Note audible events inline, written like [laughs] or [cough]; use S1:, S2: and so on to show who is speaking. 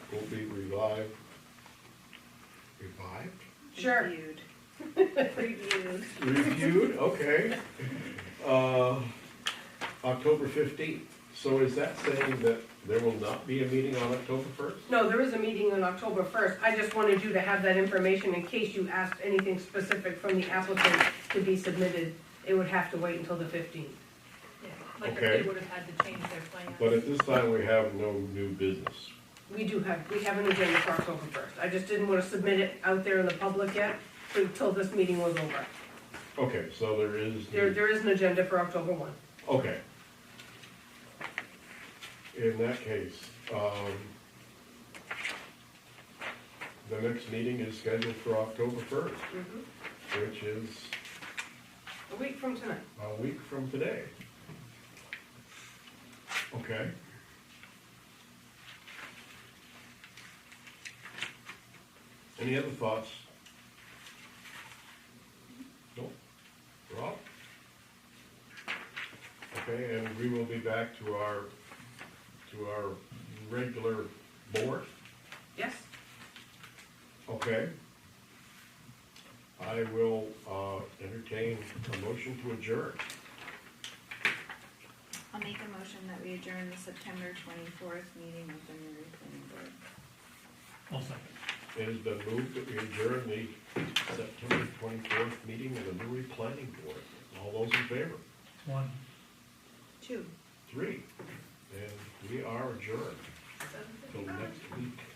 S1: revived. Revived?
S2: Sure.
S3: Reviewed. Reviewed.
S1: Reviewed, okay. Uh, October fifteenth, so is that saying that there will not be a meeting on October first?
S2: [laughs] No, there is a meeting on October first. I just wanted you to have that information in case you asked anything specific from the applicant to be submitted. It would have to wait until the fifteenth.
S4: Yeah, Like if
S1: Okay.
S4: they would have had to change their plans.
S1: But at this time, we have no new business.
S2: We do have, we have an agenda for October first. I just didn't wanna submit it out there in the public yet until this meeting was over.
S1: Okay, so there is.
S2: There, there is an agenda for October one.
S1: Okay. In that case, um, the next meeting is scheduled for October first, which is
S2: Mm-hmm. A week from tonight.
S1: a week from today. Okay. Any other thoughts? No? Rob? Okay, and we will be back to our, to our regular board,
S2: Yes?
S1: okay? I will, uh, entertain a motion to adjourn.
S3: I'll make a motion that we adjourn the September twenty-fourth meeting of the Newry Planning Board.
S5: I'll second.
S1: It has been moved that we adjourn the September twenty-fourth meeting of the Newry Planning Board. All those in favor?
S5: One.
S3: Two.
S1: Three.